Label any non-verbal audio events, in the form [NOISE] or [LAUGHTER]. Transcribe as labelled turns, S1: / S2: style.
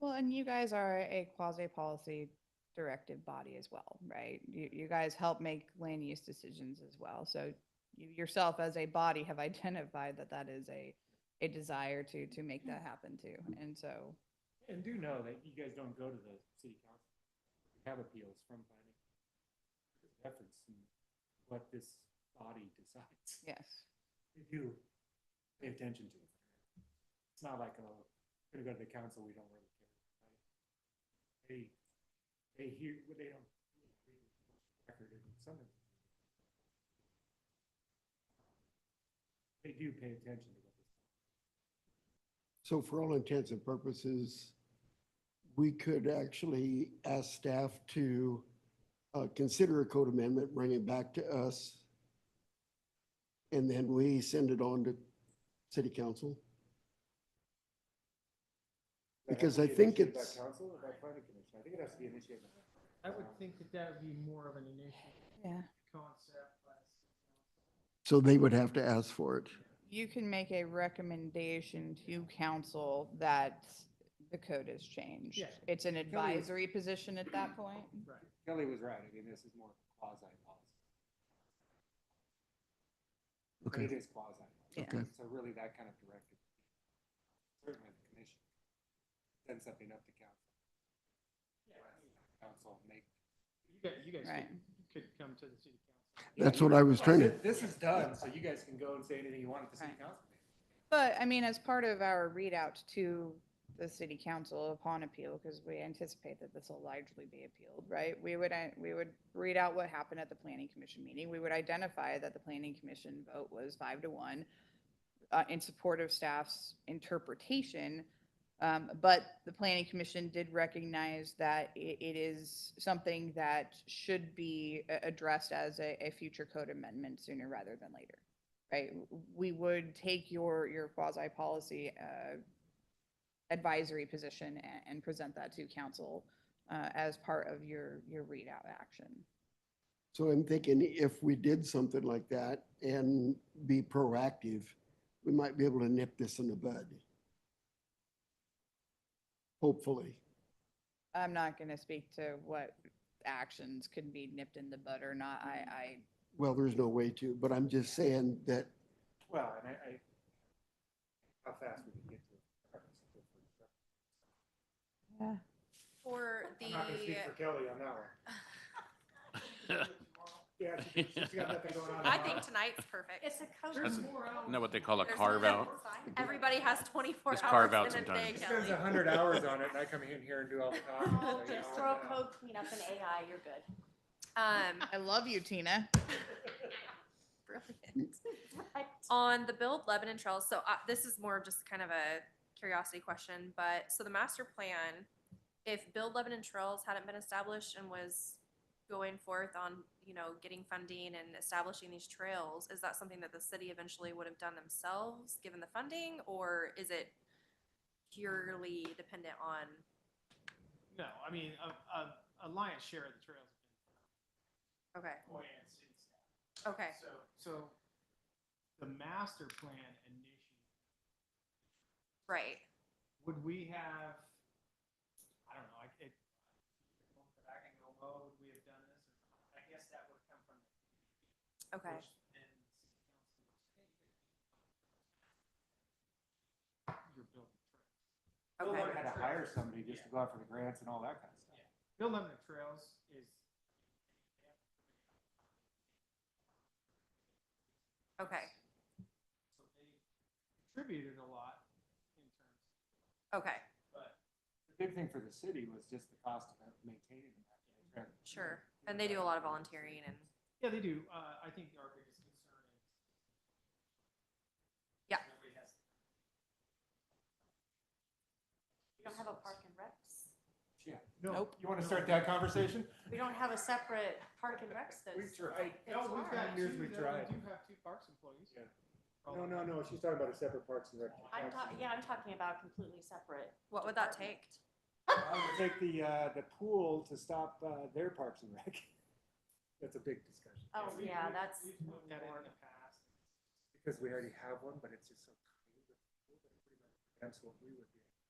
S1: Well, and you guys are a quasi-policy directed body as well, right? You, you guys help make land use decisions as well. So you yourself as a body have [LAUGHS] identified that that is a, a desire to, to make that happen too. And so,
S2: And do know that you guys don't go to the city council, You have appeals from planning. Efforts and what this body decides.
S1: yes.
S2: They do pay attention to it. It's not like, oh, we're gonna go to the council, we don't really care. right? They, they hear, well, they don't. record it, and some of them- They do pay attention to what this.
S3: So for all intents and purposes, we could actually ask staff to uh, consider a code amendment, bring it back to us. And then we send it on to city council.
S2: That has
S3: Because
S2: to
S3: I
S2: be
S3: think
S2: initiated
S3: it's-
S2: By council or by planning commission? I think it has to be initiated. by-
S4: I would think that that would be more of an initial
S1: Yeah.
S4: concept. by the city council.
S3: So they would have to ask for it.
S1: You can make a recommendation to council that the code has changed.
S4: Yeah.
S1: It's an
S2: we-
S1: advisory position at that point.
S4: Right.
S2: Kelly was right. I mean, this is more quasi policy. But it
S3: Okay,
S2: is quasi.
S3: Okay.
S2: So really that kind of directed. Certainly the commission. Send something up to council. Council make.
S4: You guys, you guys
S1: Right.
S4: could- you could come to the city council.
S3: that's what I was trying to,
S2: This is done, so you guys can go and say anything you want at the city
S1: Right.
S2: council. meeting.
S1: But I mean, as part of our readout to the city council upon appeal, because we anticipate that this will largely be appealed, right? We would, uh, we would read out what happened at the planning commission meeting. We would identify that the planning commission vote was five to one uh, in support of staff's interpretation. Um, but the planning commission did recognize that i- it is something that should be a- addressed as a, a future code amendment sooner rather than later right? w- We would take your, your quasi-policy uh, advisory position and, and present that to council uh, as part of your, your readout action.
S3: so I'm thinking if we did something like that and be proactive, we might be able to nip this in the bud. Hopefully.
S1: I'm not going to speak to what actions could be nipped in the bud or not. I,
S3: Well, there's no way to, but I'm just saying that,
S2: Well, and I, I, how fast we can get to. it.
S1: I.
S5: For
S2: I'm not gonna speak for
S5: the,
S2: Kelly on that one.
S6: [LAUGHS]
S2: Yeah, she- she's got nothing going on.
S5: I think tonight's perfect.
S7: It's a code.
S6: That's- Isn't that what they call a
S5: There's
S6: carve out?
S5: Everybody has twenty-four hours.
S6: Just carve out
S5: in a
S6: sometimes.
S5: day,
S2: She
S5: Kelly.
S2: spends a hundred hours on it and I come in here and do all the talking. so,
S7: Oh,
S2: you
S7: Just
S2: know,
S7: throw
S2: yeah.
S7: code cleanup and AI, you're good.
S5: Um,
S1: I love you, Tina.
S5: brilliant.
S7: [LAUGHS] Right.
S5: On the build Lebanon Trails, so uh, this is more of just kind of a curiosity question, but so the master plan, if build Lebanon Trails hadn't been established and was going forth on, you know, getting funding and establishing these trails, is that something that the city eventually would have done themselves, given the funding, or is it purely dependent on?
S4: No, I mean, a, a, a lion's share of the trails
S5: Okay,
S4: have been planned since that.
S5: okay,
S4: So, so the master plan initiative,
S5: right.
S4: would we have, I don't know, I, it, I can go, oh, would we have done this? I guess that would come from. the
S5: Okay.
S4: first and city council. You're building trails.
S2: Bill
S5: Okay.
S2: Lord had to hire somebody just to go out for the grants and all that kind of stuff.
S4: Bill Lemon Trails is.
S5: Okay.
S4: So they contributed a lot in terms,
S5: Okay,
S4: but
S2: The big thing for the city was just the cost of maintaining that.
S5: sure. And they do a lot of volunteering and,
S4: yeah, they do. Uh, I think our biggest concern is.
S5: Yeah.
S4: Nobody has.
S7: We don't have a park and recs.
S2: Yeah.
S4: Nope.
S2: You want to start that conversation?
S7: We don't have a separate park and recs
S2: We
S7: that's.
S2: tried.
S4: No,
S7: It's
S4: we've
S7: hard.
S4: got two,
S2: Years
S4: that
S2: we
S4: we
S2: tried.
S4: do have two parks employees.
S2: Yeah.
S4: Oh.
S2: No, no, no, she's talking about a separate Parks and Rec.
S7: I'm talking, yeah, I'm talking about completely separate.
S5: what would that
S7: department.
S5: take?
S2: I would take the, uh, the pool to stop, uh, their Parks and Rec. [LAUGHS] That's a big discussion,
S7: Oh,
S4: we-
S7: yeah,
S4: we-
S7: that's.
S4: We've looked at it in the past.
S2: because we already have one, but it's just so. tiny, but it's pretty much- That's what we would do.